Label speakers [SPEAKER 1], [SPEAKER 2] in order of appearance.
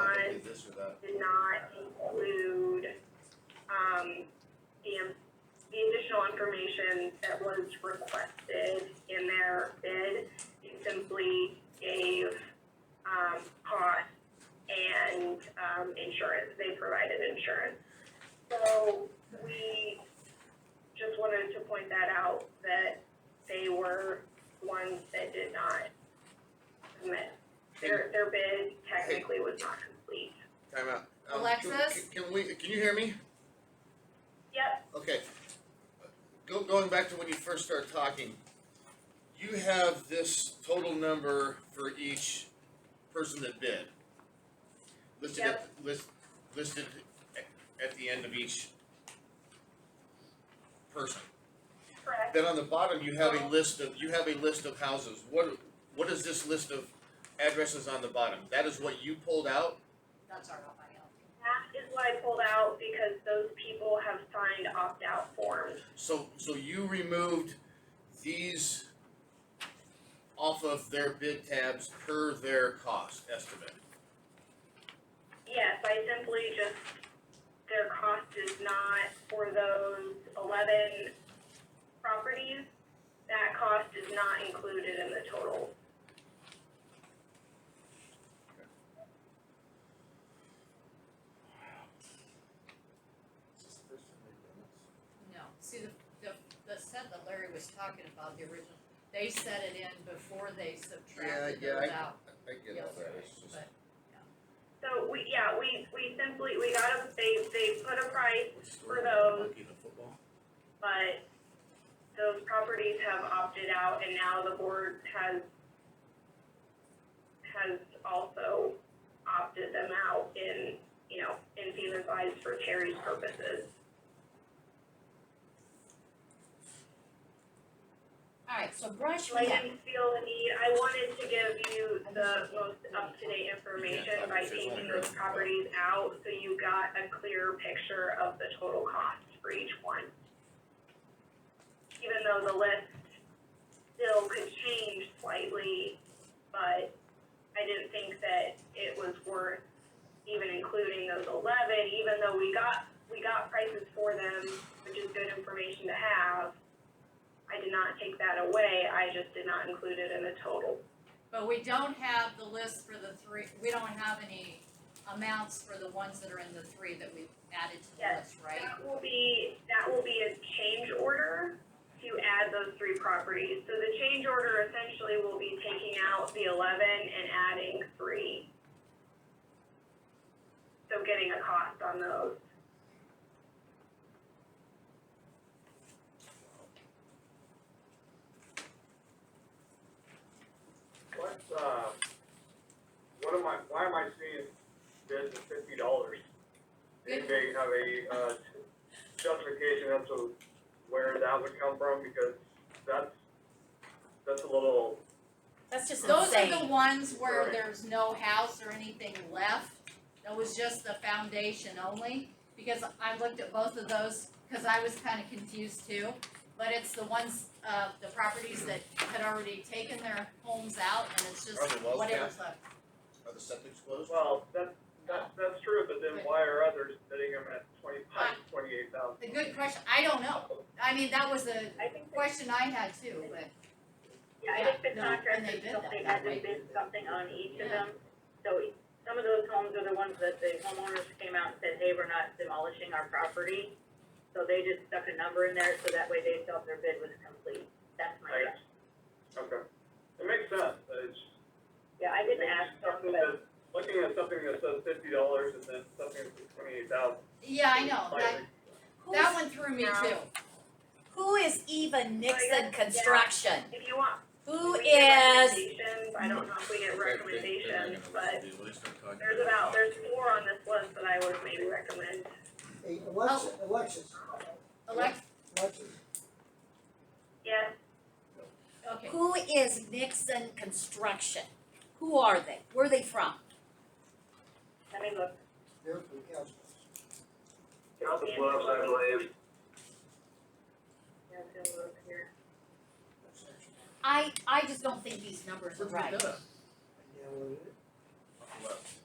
[SPEAKER 1] answer that.
[SPEAKER 2] did not include, um, the, the additional information that was requested in their bid. It simply gave, um, cost and, um, insurance, they provided insurance. So we just wanted to point that out, that they were ones that did not submit. Their, their bid technically was not complete.
[SPEAKER 1] Time out. Um, can-
[SPEAKER 3] Alexis?
[SPEAKER 1] Can can we, can you hear me?
[SPEAKER 2] Yep,
[SPEAKER 1] Okay. Go, going back to when you first started talking, you have this total number for each person that bid. Listed at, list, listed at, at the end of each person.
[SPEAKER 2] correct.
[SPEAKER 1] Then on the bottom, you have a list of, you have a list of houses. What, what is this list of addresses on the bottom? That is what you pulled out?
[SPEAKER 3] That's our FIL.
[SPEAKER 2] That is what I pulled out because those people have signed opt-out forms.
[SPEAKER 1] So, so you removed these off of their bid tabs per their cost estimate?
[SPEAKER 2] Yes, I simply just, their cost is not for those eleven properties. That cost is not included in the total.
[SPEAKER 3] No, see, the, the, the set that Larry was talking about, the original, they set it in before they subtracted
[SPEAKER 1] Yeah, yeah,
[SPEAKER 3] those out
[SPEAKER 1] I get all that,
[SPEAKER 3] yesterday,
[SPEAKER 1] it's just,
[SPEAKER 3] but,
[SPEAKER 2] So we, yeah, we, we simply, we got a, they, they put a price,
[SPEAKER 1] what's the
[SPEAKER 2] For those-
[SPEAKER 1] monkey in the football?
[SPEAKER 2] but those properties have opted out and now the board has, has also opted them out in, you know, in fees and fines for Terry's purposes.
[SPEAKER 3] alright, so brush
[SPEAKER 2] I
[SPEAKER 3] me up.
[SPEAKER 2] didn't feel the need, I wanted to give you the most up-to-date information by taking those properties out, so you got a clear picture of the total cost for each one. Even though the list still could change slightly, but I didn't think that it was worth even including those eleven, even though we got, we got prices for them, which is good information to have. I did not take that away, I just did not include it in the total.
[SPEAKER 3] But we don't have the list for the three, we don't have any amounts for the ones that are in the three that we've added to the
[SPEAKER 2] Yes.
[SPEAKER 3] list, right?
[SPEAKER 2] That will be, that will be a change order to add those three properties. So the change order essentially will be taking out the eleven and adding three. So getting a cost on those.
[SPEAKER 4] What's, uh, what am I, why am I seeing bids at fifty dollars? Do they have a, uh, justification as to where that would come from, because that's, that's a little,
[SPEAKER 5] That's just
[SPEAKER 3] Those are the
[SPEAKER 5] insane.
[SPEAKER 3] ones where
[SPEAKER 4] Right.
[SPEAKER 3] there's no house or anything left, that was just the foundation only, because I looked at both of those, cause I was kinda confused too. But it's the ones, uh, the properties that had already taken their homes out and it's just
[SPEAKER 1] Are they wells
[SPEAKER 3] whatever's left.
[SPEAKER 1] Are the septic's closed?
[SPEAKER 4] well, that, that, that's true, but then why are others bidding them at twenty-five, twenty-eight thousand?
[SPEAKER 3] The good question, I don't know, I mean, that was a
[SPEAKER 2] I think, that-
[SPEAKER 3] question I had too, but.
[SPEAKER 2] yeah, I think the
[SPEAKER 3] Yeah, no, and
[SPEAKER 2] contract
[SPEAKER 3] they
[SPEAKER 2] is
[SPEAKER 3] did
[SPEAKER 2] something,
[SPEAKER 3] that,
[SPEAKER 2] had to
[SPEAKER 3] right?
[SPEAKER 2] bid something on each of
[SPEAKER 3] Yeah.
[SPEAKER 2] them. So e, some of those homes are the ones that the homeowners came out and said, hey, we're not demolishing our property. So they just stuck a number in there, so that way they felt their bid was complete. That's my guess.
[SPEAKER 4] Right. Okay, it makes sense, but it's.
[SPEAKER 2] Yeah, I didn't ask them,
[SPEAKER 4] Something
[SPEAKER 2] but
[SPEAKER 4] that, looking at something that says fifty dollars and then something that says twenty-eight thousand.
[SPEAKER 3] Yeah, I know, that, that one threw me
[SPEAKER 2] No.
[SPEAKER 3] too.
[SPEAKER 5] Who is Eva
[SPEAKER 2] yeah.
[SPEAKER 5] Nixon Construction?
[SPEAKER 2] if you want,
[SPEAKER 5] Who
[SPEAKER 2] we get
[SPEAKER 5] is?
[SPEAKER 2] recommendations, I don't know if we get recommendations, but there's
[SPEAKER 1] there's
[SPEAKER 2] about, there's four on this list that I would maybe recommend.
[SPEAKER 6] Hey, Alexis, Alexis,
[SPEAKER 3] Alex,
[SPEAKER 6] Alexis,
[SPEAKER 2] Yes,
[SPEAKER 3] okay,
[SPEAKER 5] Who is Nixon Construction? Who are they? Where are they from?
[SPEAKER 2] let me look.
[SPEAKER 6] they're from Casper.
[SPEAKER 2] Council Bluffs, I believe. Yeah, I'm gonna look here.
[SPEAKER 5] I, I just don't think these numbers are
[SPEAKER 1] Where'd you
[SPEAKER 5] right.
[SPEAKER 1] get that?
[SPEAKER 6] Yeah, well,
[SPEAKER 1] Off the left.